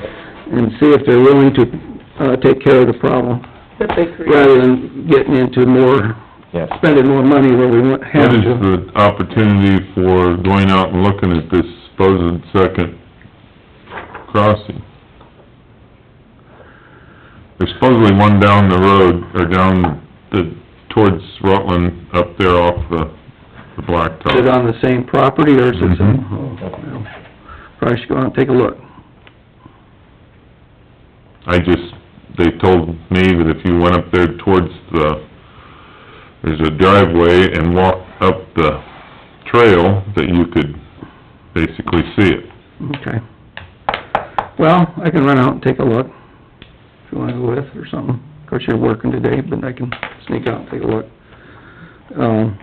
and see if they're willing to, uh, take care of the problem, that they create. rather than getting into more, Yes. spending more money where we won't have What is to. the opportunity for going out and looking at this supposed second crossing? There's supposedly one down the road, or down the, towards Rutland, up there off the, the blacktop. Is it on the same property, or is it some, Mm-hmm. Mhm. oh, well, probably should go out and take a look. I just, they told me that if you went up there towards the, there's a driveway and walked up the trail, that you could basically see it. Okay. Well, I can run out and take a look, if you wanna go with, or something. Of course, you're working today, but I can sneak out and take a look. Um,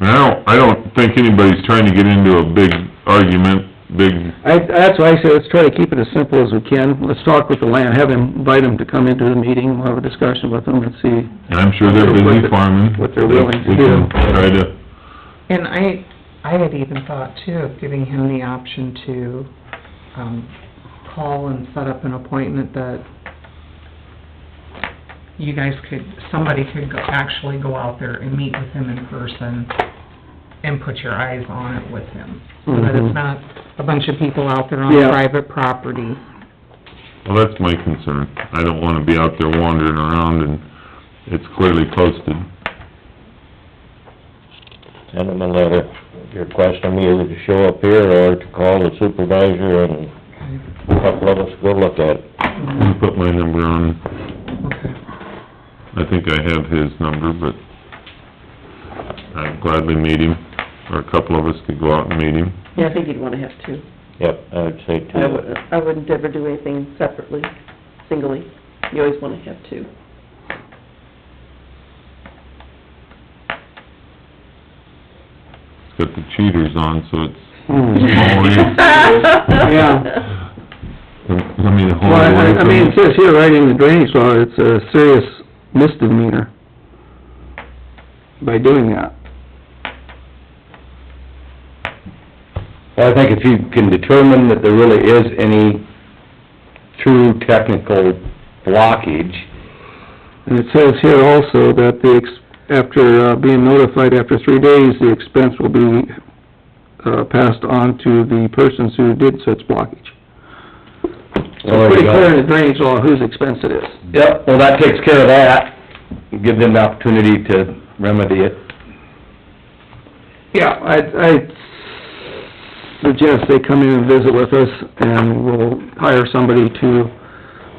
And I don't, I don't think anybody's trying to get into a big argument, big, I, that's why I say, let's try to keep it as simple as we can. Let's talk with the land, have him, invite him to come into the meeting, we'll have a discussion with him, and see. and I'm sure they're busy farming. What they're willing to We can do. Try to, And I, I had even thought too of giving him the option to, um, call and set up an appointment that you guys could, somebody could go, actually go out there and meet with him in person and put your eyes on it with him. So that Mhm. it's not a bunch of people out there on Yeah. private property. well, that's my concern. I don't wanna be out there wandering around and it's clearly posted. Send them a letter requesting me either to show up here or to call the supervisor and a couple of us go look at it. You put my number on, Okay. I think I have his number, but I'd gladly meet him, or a couple of us could go out and meet him. Yeah, I think you'd wanna have two. Yep, I would say I two. wouldn't, I wouldn't ever do anything separately, singly. You always wanna have two. It's got the cheaters on, so it's, Mm-hmm. Hmm. Yeah. Yeah. I mean, the whole... Well, I, I mean, it says here, right in the drainage law, it's a serious misdemeanor by doing that. I think if you can determine that there really is any true technical blockage, And it says here also that the, ex after uh, being notified after three days, the expense will be, uh, passed on to the persons who did such blockage. So Well, there you pretty go. clear in the drainage law whose expense it is. yep, well, that takes care of that. Give them the opportunity to remedy it. Yeah, I, I suggest they come in and visit with us, and we'll hire somebody to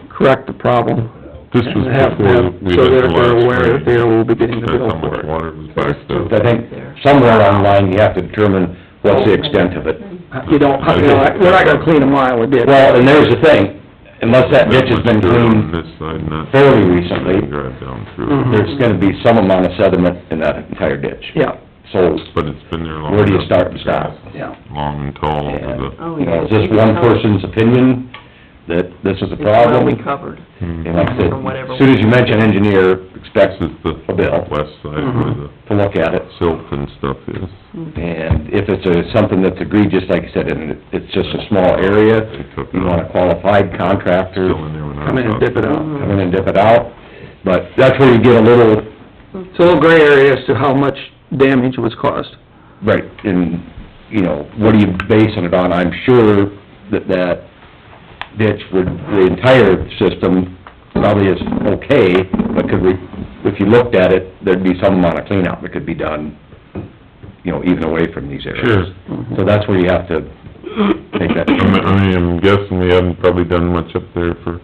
correct the problem. This was And have before them- we So had that they're the last aware that rain. they will be getting the That's bill how for much it. water was backed up. I think somewhere on the line, you have to determine what's the extent of it. Uh, You don't, you know, like, we're not gonna clean them while we did. Well, and there's the thing, unless that ditch has been That much dirt on cleaned, this side, not... fairly recently. You can Drive down Mhm. through, there's gonna be some amount of sediment in that entire ditch. Yeah, So, but it's been there long where enough. do you start and stop? yeah. Long and tall over And, Oh, you yeah. know, is this one person's opinion that this is a problem? It's well covered. the... And like I said, From whatever- as soon as you mention engineer, hmm, This expect is the A bill. west side where Mm-hmm. the to look at it. silt and stuff is. And if it's a, something that's egregious, like you said, and it's just a small area, you want a qualified contractor, Still in there when I was out. Come in and dip it out. come in and dip it out. But that's where you get a little, It's a little gray area as to how much damage was caused. right, in, you know, what are you basing it on? I'm sure that that ditch would, the entire system probably is okay, but could we, if you looked at it, there'd be some amount of cleanup that could be done, you know, even away from these areas. Sure. So that's where you have to make that I mean, determination. I mean, I'm guessing we haven't probably done much up there for,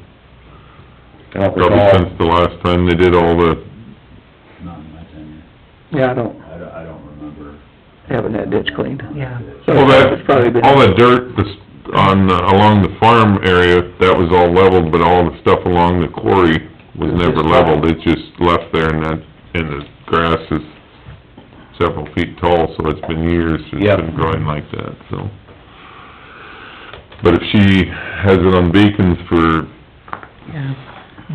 I don't probably recall, since the last time they did all the, Not in my tenure. Yeah, I don't, I don't, I don't remember. haven't had ditch cleaned. Yeah. So all it's probably that, been- all the dirt that's on, the- along the farm area, that was all leveled, but all the stuff along the quarry was never leveled, it just left there and that, and the grass is several feet tall, so it's been years, it's Yep. been growing like that, so. But if she has it on beacons for, Yeah.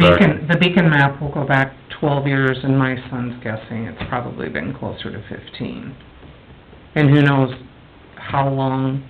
Back- Beacon, the beacon map will go back twelve years, and my son's guessing it's probably been closer to fifteen. And who knows how long